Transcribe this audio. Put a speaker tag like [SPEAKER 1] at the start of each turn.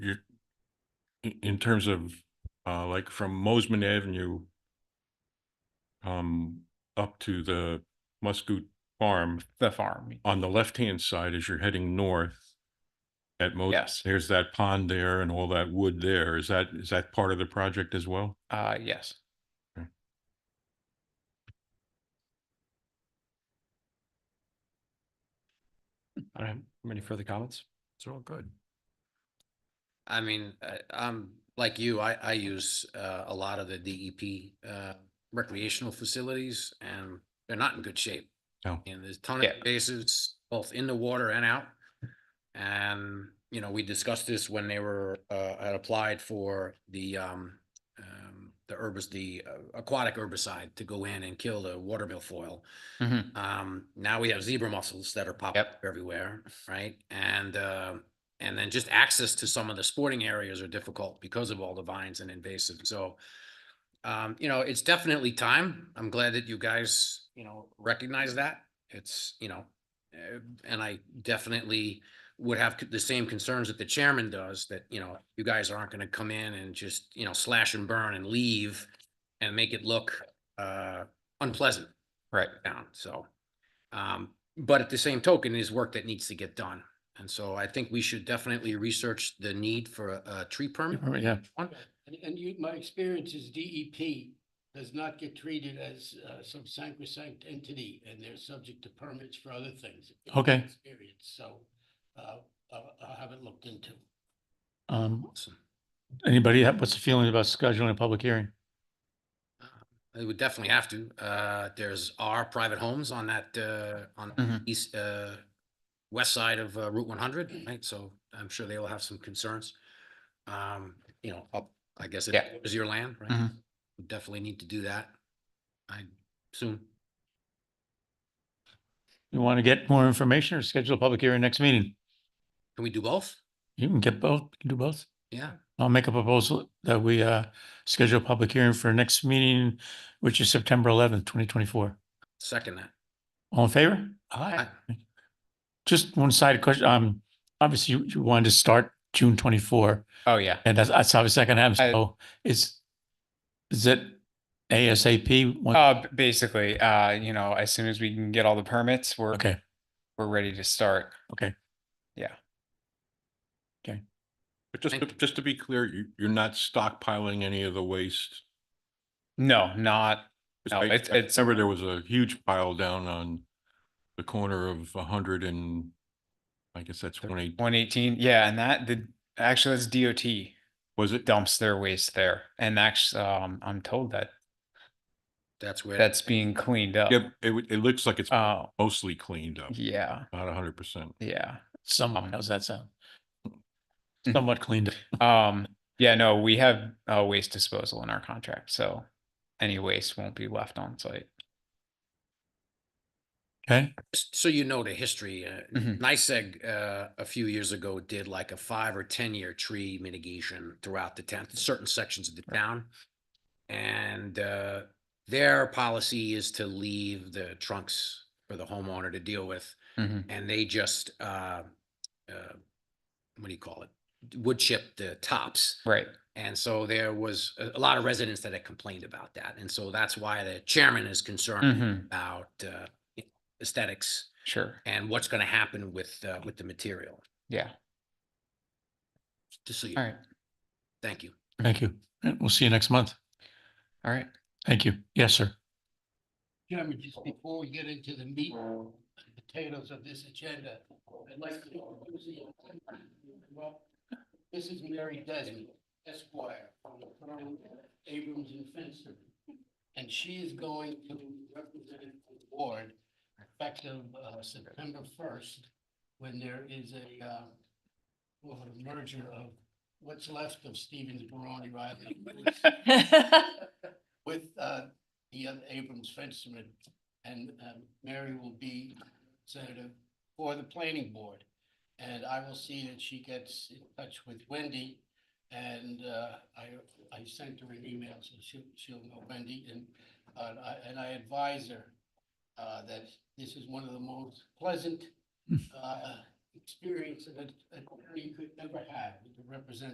[SPEAKER 1] in, in terms of, uh, like from Mosman Avenue um, up to the Muscoot Farm,
[SPEAKER 2] the farm.
[SPEAKER 1] on the left-hand side as you're heading north at Mo,
[SPEAKER 2] Yes.
[SPEAKER 1] there's that pond there and all that wood there. Is that, is that part of the project as well?
[SPEAKER 2] Uh, yes.
[SPEAKER 1] Okay.
[SPEAKER 2] I don't have any further comments. It's all good.
[SPEAKER 3] I mean, I, I'm like you, I, I use, uh, a lot of the DEP, uh, recreational facilities and they're not in good shape.
[SPEAKER 1] No.
[SPEAKER 3] And there's ton of
[SPEAKER 2] Yeah.
[SPEAKER 3] bases, both in the water and out. And, you know, we discussed this when they were, uh, had applied for the, um, um, the herbis, the uh, aquatic herbicide to go in and kill the water milfoil.
[SPEAKER 4] Mm-hmm,
[SPEAKER 3] Um, now we have zebra mussels that are popping
[SPEAKER 2] Yep.
[SPEAKER 3] up everywhere, right? And, uh, and then just access to some of the sporting areas are difficult because of all the vines and invasive, so. Um, you know, it's definitely time. I'm glad that you guys, you know, recognize that. It's, you know, uh, and I definitely would have c- the same concerns that the chairman does, that, you know, you guys aren't gonna come in and just, you know, slash and burn and leave and make it look, uh, unpleasant
[SPEAKER 2] Right.
[SPEAKER 3] down, so. Um, but at the same token, is work that needs to get done. And so I think we should definitely research the need for a, a tree permit.
[SPEAKER 2] Yeah.
[SPEAKER 3] one.
[SPEAKER 5] And, and you, my experience is DEP does not get treated as, uh, some sacrosanct entity, and they're subject to permits for other things. in my
[SPEAKER 2] Okay.
[SPEAKER 5] Experience, so, uh, I'll, I'll have it looked into.
[SPEAKER 2] Um,
[SPEAKER 3] Awesome.
[SPEAKER 2] anybody, have- what's the feeling about scheduling a public hearing?
[SPEAKER 3] They would definitely have to. Uh, there's our private homes on that, uh, on
[SPEAKER 2] Mhm.
[SPEAKER 3] east, uh, west side of uh, Route one hundred, right? So I'm sure they will have some concerns. Um, you know, up, I guess it
[SPEAKER 2] Yeah.
[SPEAKER 3] is your land, right?
[SPEAKER 2] Mhm.
[SPEAKER 3] We Definitely need to do that. I soon.
[SPEAKER 2] You want to get more information or schedule a public hearing next meeting?
[SPEAKER 3] Can we do both?
[SPEAKER 2] You can get both, you can do both.
[SPEAKER 3] Yeah.
[SPEAKER 2] I'll make a proposal that we, uh, schedule a public hearing for next meeting, which is September eleventh, twenty twenty-four.
[SPEAKER 3] Second that.
[SPEAKER 2] All in favor?
[SPEAKER 3] Aye.
[SPEAKER 2] Just one side question, um, obviously you, you wanted to start June twenty-four,
[SPEAKER 4] Oh, yeah.
[SPEAKER 2] and that's, that's obviously not gonna happen,
[SPEAKER 4] I-
[SPEAKER 2] so is, is it ASAP? When-
[SPEAKER 4] Uh, b- basically, uh, you know, as soon as we can get all the permits, we're,
[SPEAKER 2] Okay,
[SPEAKER 4] we're ready to start.
[SPEAKER 1] But just, to-
[SPEAKER 3] Thank you.
[SPEAKER 1] just to be clear, you, you're not stockpiling any of the waste?
[SPEAKER 4] No, not,
[SPEAKER 1] 'Cause
[SPEAKER 4] No,
[SPEAKER 1] I-
[SPEAKER 4] it's-
[SPEAKER 1] I
[SPEAKER 4] it's-
[SPEAKER 1] Remember there was a huge pile down on the corner of a hundred and, I guess that's
[SPEAKER 4] The-
[SPEAKER 1] one eight,
[SPEAKER 4] one eighteen, yeah, and that, the, actually, that's DOT
[SPEAKER 1] was it?
[SPEAKER 4] dumps their waste there, and actually, um, I'm told that
[SPEAKER 3] That's where.
[SPEAKER 4] that's being cleaned up.
[SPEAKER 1] Yep, it, w- it looks like it's
[SPEAKER 4] Oh,
[SPEAKER 1] mostly cleaned up,
[SPEAKER 4] yeah,
[SPEAKER 1] not a hundred percent.
[SPEAKER 4] yeah.
[SPEAKER 2] somewhat,
[SPEAKER 4] Um,
[SPEAKER 2] how's that sound? Somewhat cleaned up.
[SPEAKER 4] Um, yeah, no, we have, uh, waste disposal in our contract, so any waste won't be left on site.
[SPEAKER 2] Okay,
[SPEAKER 3] Just so you know the history, uh,
[SPEAKER 4] Mhm.
[SPEAKER 3] NICEAG, uh, a few years ago did like a five or ten-year tree mitigation throughout the town, certain sections of the town. And, uh, their policy is to leave the trunks for the homeowner to deal with.
[SPEAKER 4] Mhm.
[SPEAKER 3] And they just, uh, uh, what do you call it? Wood chip the tops.
[SPEAKER 4] Right,
[SPEAKER 3] And so there was a, a lot of residents that had complained about that. And so that's why the chairman is concerned
[SPEAKER 4] Mhm.
[SPEAKER 3] about, uh, aesthetics
[SPEAKER 4] sure,
[SPEAKER 3] and what's gonna happen with, uh, with the material,
[SPEAKER 4] yeah,
[SPEAKER 3] just so you,
[SPEAKER 4] all right,
[SPEAKER 3] thank you.
[SPEAKER 2] thank you. And we'll see you next month.
[SPEAKER 4] all right.
[SPEAKER 2] Thank you. Yes, sir.
[SPEAKER 5] Chairman, just before we get into the meat and potatoes of this agenda, I'd like to. introduce you. Well, This is Mary Desmond Esquire from the firm Abrams and Finster. And she is going to represent the board effective uh, September first, when there is a uh, well, a merger of what's left of Stevens Barone Riley with uh, the other Abrams Fensterman. And um, Mary will be Senator for the planning board. And I will see that she gets in touch with Wendy. And uh, I, I sent her an email, so she'll, she'll know Wendy. And, uh, I- and I advise her uh, that this is one of the most pleasant uh, experiences that an attorney could ever have, to represent